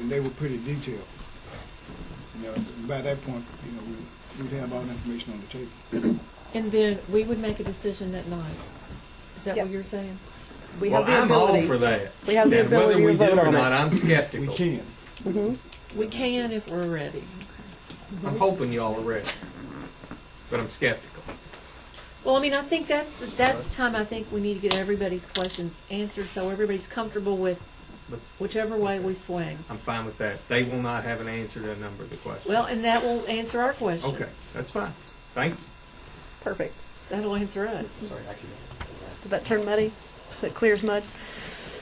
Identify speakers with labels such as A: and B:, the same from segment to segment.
A: and they were pretty detailed. You know, by that point, you know, we- we'd have all the information on the table.
B: And then we would make a decision that night. Is that
C: Yep.
B: what you're saying?
C: We
D: Well,
C: have the
D: I'm
C: ability.
D: all for that.
C: We have the
D: and whether
C: ability
D: we
C: to
D: do
C: vote
D: or
C: on
D: not,
C: it.
D: I'm
A: We
D: skeptical.
A: can.
B: We can if we're ready.
D: I'm hoping y'all are ready, but I'm skeptical.
B: Well, I mean, I think that's, the- that's the time I think we need to get everybody's questions answered so everybody's comfortable with
D: But-
B: whichever way we swing.
D: I'm fine with that. They will not have an answer to a number of the questions.
B: Well, and that will answer our question.
D: okay, that's fine. Thank you.
C: Perfect.
B: That'll answer us.
D: Sorry, actually,
C: Did that turn muddy? So it clears mud?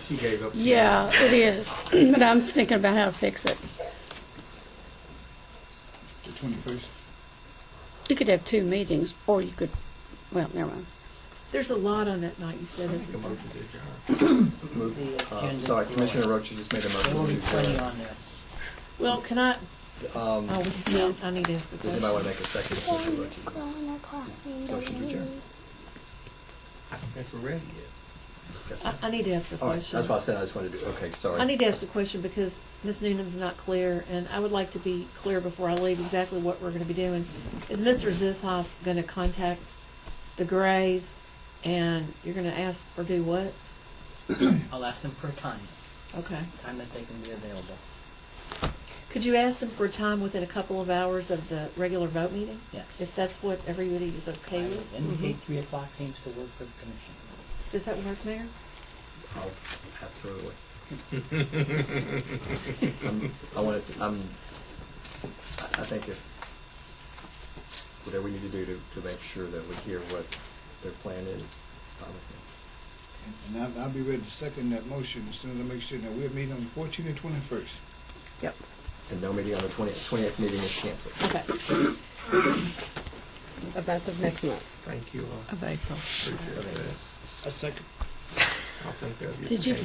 D: she gave up.
E: Yeah, it is, but I'm thinking about how to fix it.
A: The twenty-first.
E: You could have two meetings, or you could, well, never mind.
B: There's a lot on that night, you said,
D: Make
B: isn't
D: a
B: there?
D: motion to adjourn.
F: The
G: Uh,
F: agenda
G: Sorry,
F: for-
G: Commissioner Roach, you just made a
F: There will be
G: motion to
F: plenty
G: adjourn.
F: on there.
B: Well, can I,
G: Um,
B: oh, we can- I need to ask the
G: Does anybody want
B: question.
G: to make a second? to Commissioner Roach's Motion to adjourn.
D: I don't think we're ready yet.
G: Yes.
B: I, I need to ask the
G: All right, that's
B: question.
G: what I said, I just wanted to, do. okay, sorry.
B: I need to ask the question because Ms. Noonan's not clear, and I would like to be clear before I leave exactly what we're going to be doing. Is Mr. Zishoff going to contact the Grays, and you're going to ask or do what?
F: I'll ask them for a time,
B: Okay.
F: time that they can be available.
B: Could you ask them for a time within a couple of hours of the regular vote meeting?
F: Yes.
B: If that's what everybody is
F: I
B: okay
F: would
B: with?
F: indicate three o'clock seems to work for the commission.
B: Does that work, Mayor?
G: Oh, Absolutely. I'm- Um, I wanted, to- I'm, I I think if, whatever we need to do to, to make sure that we hear what their plan is. um,
A: And I'll, I'll be ready to second that motion as soon as I make sure that we're meeting on the fourteenth and twenty-first.
C: Yep.
G: And no meeting on the twentieth, twentieth meeting is canceled.
B: Okay.
C: About the next month.
D: Thank you all.
C: Of April.
D: Appreciate that.
A: A second.
D: I'll think that'll be.
E: Did you-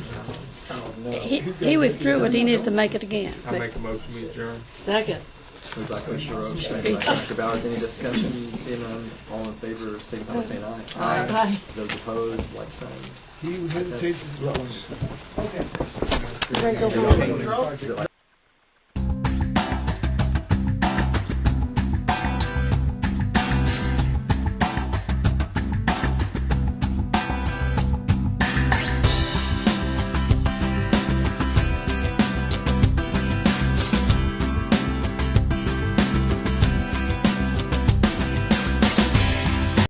G: Oh,
E: He he withdrew it, he needs to make it again.
D: I make a motion to adjourn.
B: Second.
G: Moved by Commissioner Roach, second by Commissioner Bowers, any discussion, seeing none, all in favor, signify by saying aye.
B: Aye.
G: Those opposed, like sign.
A: He who hesitates is lost.
G: Is it like